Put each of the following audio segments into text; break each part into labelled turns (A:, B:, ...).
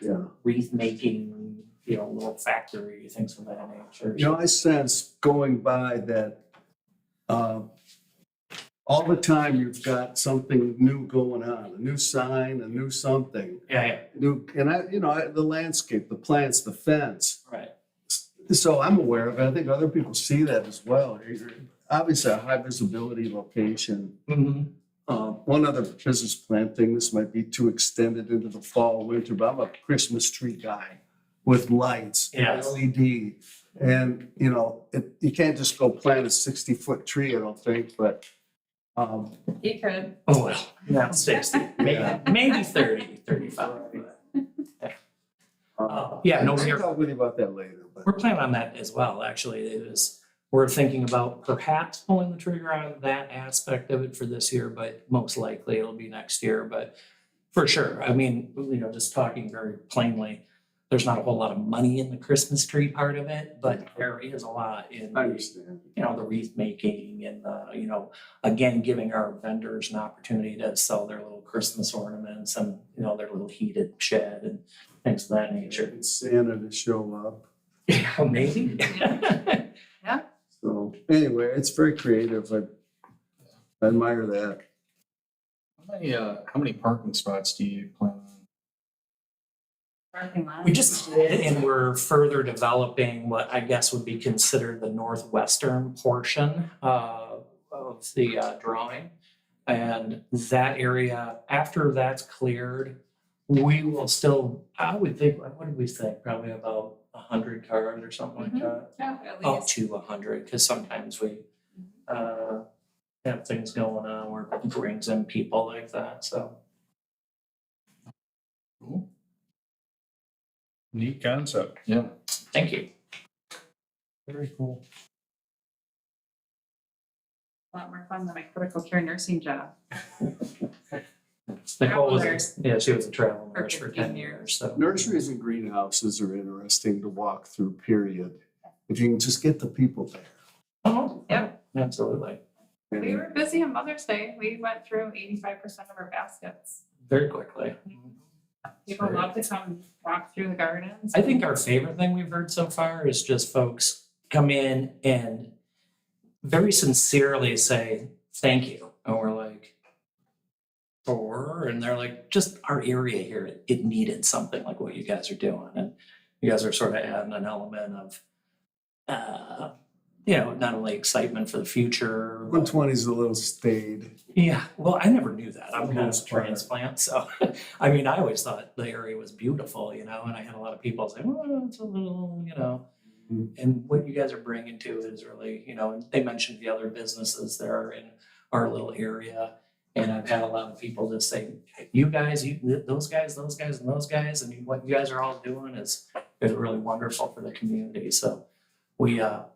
A: Yeah.
B: wreath making, you know, little factory, things of that nature.
A: You know, I sense going by that, uh, all the time you've got something new going on, a new sign, a new something,
B: Yeah, yeah,
A: new, and I, you know, I- the landscape, the plants, the fence.
B: right.
A: So I'm aware of it. I think other people see that as well. You're- Obviously, a high visibility location.
B: Mm-hmm.
A: Uh, one other business plan thing, this might be too extended into the fall, winter, but I'm a Christmas tree guy with lights. and
B: Yes.
A: LED. And, you know, it, you can't just go plant a sixty foot tree, I don't think, but, um,
C: You could.
B: Oh, well, yeah, sixty, maybe, maybe thirty, thirty-five. but-
A: uh,
B: Uh, Yeah, no, we're,
A: I'll with you about that later, but.
B: we're planning on that as well, actually, it is, we're thinking about perhaps pulling the trigger on that aspect of it for this year, but most likely it'll be next year, but for sure, I mean, you know, just talking very plainly, there's not a whole lot of money in the Christmas tree part of it, but there is a lot in
A: I
B: the
A: understand.
B: you know, the wreath making and the, you know, again, giving our vendors an opportunity to sell their little Christmas ornaments and, you know, their little heated shed and things of that nature.
A: It's Santa to show up,
B: Yeah, maybe.
A: so anyway, it's very creative. I I admire that.
D: How many, uh, how many parking spots do you plan on?
C: Parking lot.
B: We just did, and we're further developing what I guess would be considered the northwestern portion uh, of the uh, drawing. And that area, after that's cleared, we will still, I would think, what did we think? Probably about a hundred cars or something like
C: Mhm.
B: that.
C: Yeah, at
B: Up
C: least.
B: to a hundred, because sometimes we uh, have things going on where it brings in people like that, so.
D: Neat concept. Yeah.
B: Thank you.
D: Very cool.
C: A lot more fun than my critical care nursing job.
B: Nicole was,
C: Travel nurse.
B: a- yeah, she was a travel nurse
C: For
B: for
C: 15
B: ten years, so.
A: Nurseries and greenhouses are interesting to walk through, period. If you can just get the people there.
B: Oh,
C: Yeah.
B: Absolutely.
C: We were busy on Mother's Day. We went through eighty-five percent of our baskets.
B: Very quickly.
C: People
B: Right.
C: love to come walk through the gardens.
B: I think our favorite thing we've heard so far is just folks come in and very sincerely say, thank you. And we're like, for, and they're like, just our area here, it- it needed something like what you guys are doing. And you guys are sort of adding an element of, uh, you know, not only excitement for the future.
A: One
B: but-
A: twenty is a little staid.
B: Yeah, well, I never knew that. I'm
A: For the
B: kind of a
A: most part.
B: transplant, so, I mean, I always thought the area was beautiful, you know, and I had a lot of people say, well, it's a little, you know.
A: Mhm.
B: And what you guys are bringing to it is really, you know, and they mentioned the other businesses that are in our little area. And I've had a lot of people just say, you guys, you, th- those guys, those guys, and those guys, and you- what you guys are all doing is, is really wonderful for the community, so. We, uh,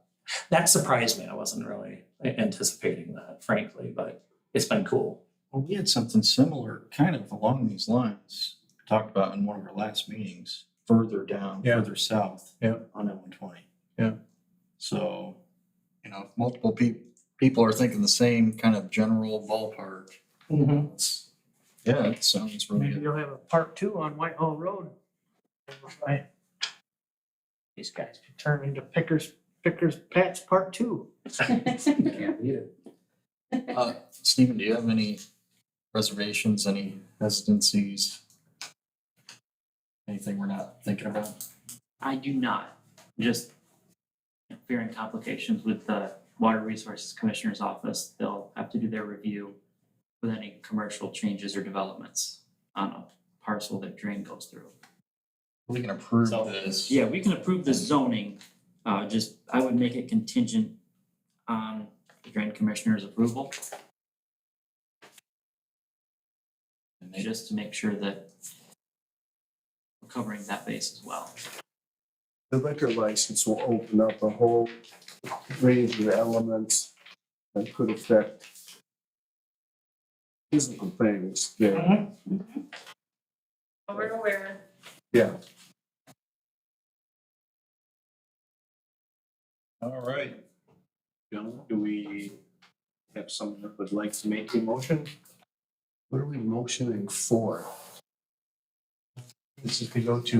B: that surprised me, I wasn't really anticipating that frankly, but it's been cool.
D: Well, we had something similar, kind of along these lines, talked about in one of our last meetings, further down,
A: Yeah.
D: further south.
A: Yeah.
D: On M one twenty.
A: Yeah.
D: So, you know, if multiple people, people are thinking the same kind of general ballpark. it's- Mm-hmm. Yeah, it sounds really
E: Maybe
D: good.
E: you'll have a part two on Whitehall Road. I- These guys could turn into Pickers, Pickers Patch Part Two.
D: Uh, Stephen, do you have any reservations, any hesitancies? Anything we're not thinking about?
F: I do not, just fearing complications with the Water Resources Commissioner's Office. They'll have to do their review with any commercial changes or developments on a parcel that drain goes through.
D: We can approve
B: So-
D: this.
F: Yeah, we can approve the zoning, uh, just, I would make it contingent on the drain commissioner's approval,
D: And they-
F: just to make sure that we're covering that base as well.
A: The liquor license will open up a whole range of elements that could affect physical things
C: Mm-hmm.
A: there.
C: But we're aware.
A: Yeah.
G: All right. Gentlemen, do we have someone that would like to make a motion?
A: What are we motioning for? This is to go to